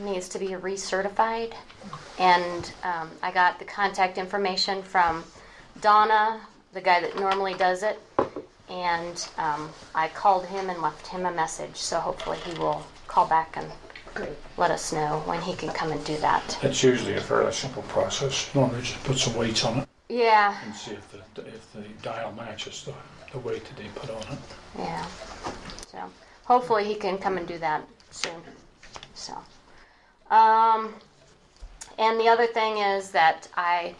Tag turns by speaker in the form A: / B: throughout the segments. A: needs to be recertified. And um, I got the contact information from Donna, the guy that normally does it. And um, I called him and left him a message, so hopefully he will call back and let us know when he can come and do that.
B: It's usually a fairly simple process. Normally just put some weights on it
A: Yeah,
B: and see if the, if the dial matches the, the weight that they put on it.
A: yeah. So hopefully he can come and do that soon. So, um, and the other thing is that I,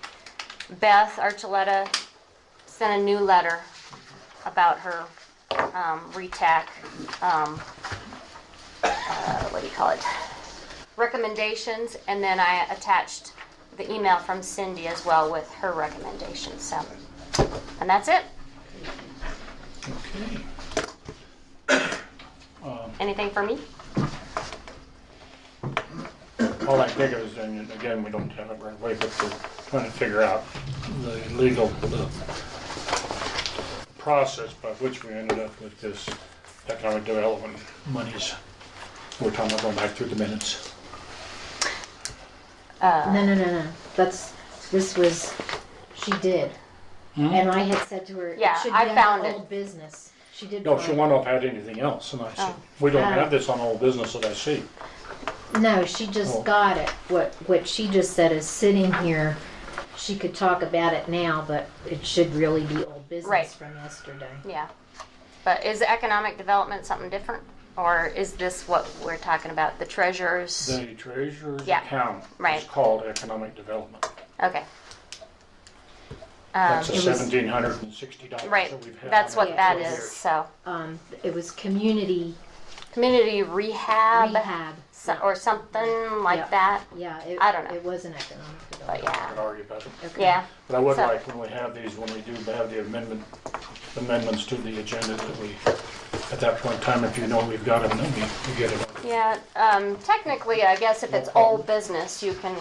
A: Beth Archuleta sent a new letter about her um, RETAC, um, uh, what do you call it? Recommendations, and then I attached the email from Cindy as well with her recommendations. So, and that's it.
B: Okay.
A: Anything for me?
B: All I think is, and again, we don't have it right away, but we're trying to figure out the legal, the process by which we ended up with this economic development monies. We're talking about going back through the minutes.
C: No, no, no, no. That's, this was, she did.
B: Hmm?
C: And I had said to her, it
A: Yeah,
C: should
A: I
C: be
A: found
C: on
A: it.
C: old business. She did.
B: No, Oh,
C: find
B: she
C: it.
B: wanted to have had anything else, and I said,
A: Oh.
B: we don't
C: Ah.
B: have this on old business that I see.
C: No, she just
B: Oh.
C: got it. What, what she just said is sitting here, she could talk about it now, but it should really be old
A: Right.
C: business from yesterday.
A: Yeah. But is economic development something different? Or is this what we're talking about, the treasurer's?
B: The treasurer's
A: Yeah.
B: account is
A: Right. Um,
B: called economic development.
A: Okay, Um,
B: That's the
C: it was-
B: seventeen hundred and sixty dollars
A: right.
B: that we've had.
A: That's
B: on
A: what
B: it
A: that
B: for
A: is,
B: years.
A: so.
C: Um, it was community
A: Community rehab
C: rehab.
A: Uh, so- or something like
C: Yeah.
A: that,
C: Yeah, it,
A: I don't know.
C: It wasn't economic
A: but
C: development.
B: I
A: yeah,
B: could argue about it.
C: Okay.
A: yeah.
B: But I would
A: So-
B: like, when we have these, when we do have the amendment, amendments to the agenda, that we, at that point in time, if you know we've got them, then we we get it.
A: Yeah, um, technically, I guess if it's
B: problem.
A: old business, you can,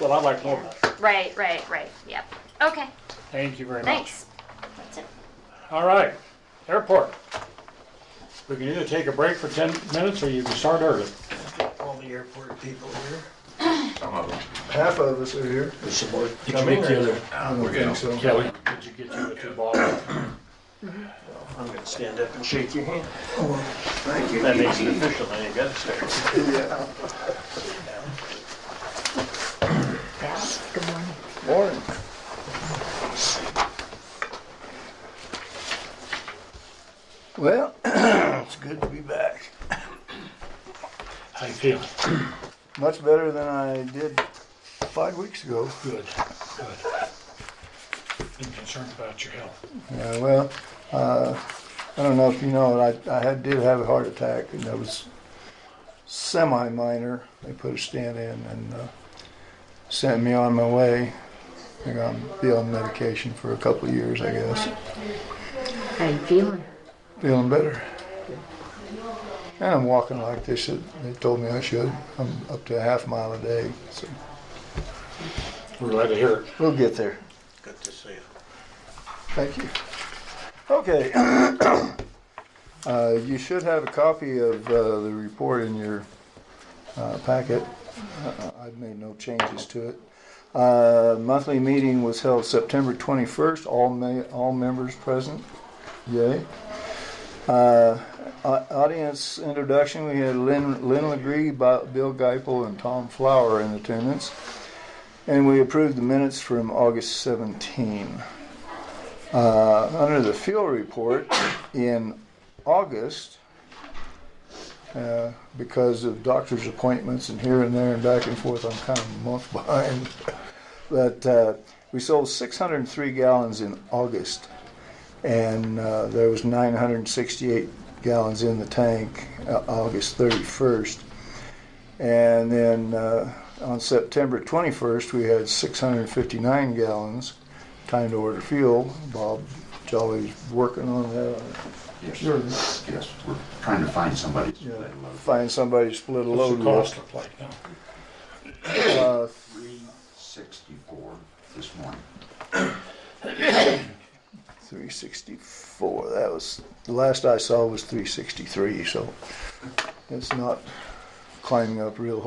B: Well, I'd like more. of that.
A: right, right, right, yep. Okay,
B: Thank you very much.
A: thanks. That's it.
B: All right, airport. We can either take a break for 10 minutes, or you can start early.
D: all the airport people here. Half of us are here.
B: Did you get the other,
D: I don't think so.
B: Kelly, did you get the other two bottles?
E: Mm-hmm. I'm gonna stand up and shake your hand.
D: Oh, Thank you.
E: That makes it official, then you gotta start.
D: Yeah.
C: Good morning.
D: Morning. Well, it's good to be back.
B: How you feeling?
D: Much better than I did five weeks ago.
B: Good, good. Been concerned about your health.
D: Yeah, well, uh, I don't know if you know, I, I had, did have a heart attack, and that was semi minor. They put a stent in and uh, sent me on my way. I'm going to be on medication for a couple of years, I guess.
C: How you feeling?
D: Feeling better. And I'm walking like they should. They told me I should. I'm up to a half mile a day, so
B: We're glad to hear it.
D: we'll get there.
E: Good to see you.
D: Thank you. Okay. Uh, You should have a copy of uh, the report in your uh, packet. Uh, I've made no changes to it. Uh, Monthly meeting was held September 21st, all, ma- all members present. Yay. Uh, au- Audience introduction, we had Lynn Lynn Legree, Bo- Bill Geipel, and Tom Flower in attendance. And we approved the minutes from August 17. Uh, under the fuel report in August, uh, because of doctor's appointments and here and there and back and forth, I'm kind of a month behind. But uh, we sold 603 gallons in August, and uh, there was 968 gallons in the tank uh, August 31st. And then uh, on September 21st, we had 659 gallons. Time to order fuel. Bob Jolly's working on that.
F: Yes,
D: Sure.
F: yes, we're trying to find somebody. to
D: Yeah.
F: let him load.
D: Find somebody to split a
B: What's
D: load
B: the cost look like now?
D: with. Uh,
F: Three sixty-four this morning.
D: 364. That was the last I saw was 363. So it's not climbing up real